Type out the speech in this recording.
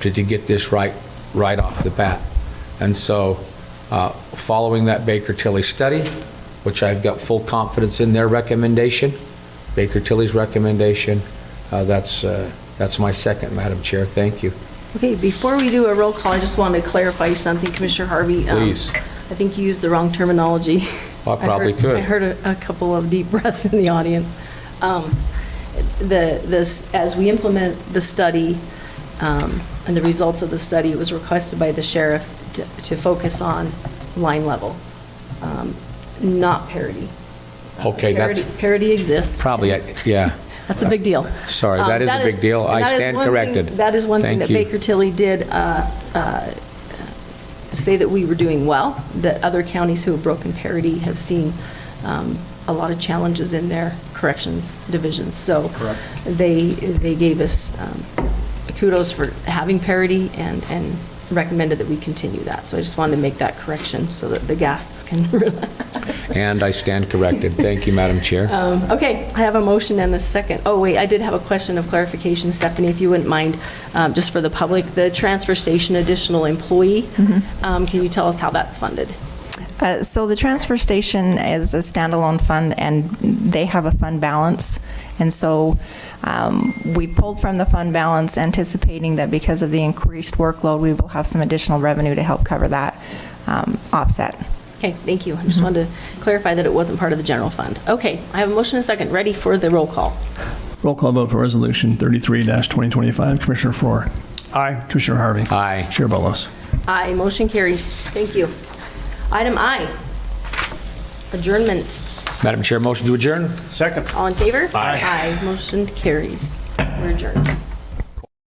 to get this right, right off the bat. And so, uh, following that Baker Tilly study, which I've got full confidence in their recommendation, Baker Tilly's recommendation, uh, that's, uh, that's my second, Madam Chair. Thank you. Okay, before we do a roll call, I just wanted to clarify something, Commissioner Harvey. um, Please. I think you used the wrong terminology. I probably heard- could. I heard a- a couple of deep breaths in the audience. Um, The, this, as we implement the study um, and the results of the study, it was requested by the sheriff to- to focus on line level, um, not parity. Okay, that's Parity- Parity exists. probably, yeah. That's a big deal. Sorry, Um, that is a big deal. I that is stand one thing- corrected. That is one thing Thank that you. Baker Tilly did uh, uh, say that we were doing well, that other counties who have broken parity have seen um, a lot of challenges in their corrections divisions. So they, they gave us um, kudos for having parity and, and recommended that we continue that. So I just wanted to make that correction so that the gasps can And I stand corrected. Thank you, Madam Chair. Um, Okay, I have a motion and a second. Oh, wait, I did have a question of clarification, Stephanie, if you wouldn't mind, um, just for the public, the transfer station additional employee, um, can you tell us how that's funded? Uh, So the transfer station is a standalone fund, and they have a fund balance. And so um, we pulled from the fund balance, anticipating that because of the increased workload, we will have some additional revenue to help cover that um, offset. Okay, thank you. I just wanted to clarify that it wasn't part of the general fund. Okay, I have a motion and a second, ready for the roll call. Roll call vote for Resolution 33-2025. Commissioner Farrar. Aye. Commissioner Harvey. Aye. Chair Bolos. Aye, motion carries. Thank you. Item I, adjournment. Madam Chair, motion to adjourn? Second. All in favor? Aye. Aye, motion carries. We're adjourned.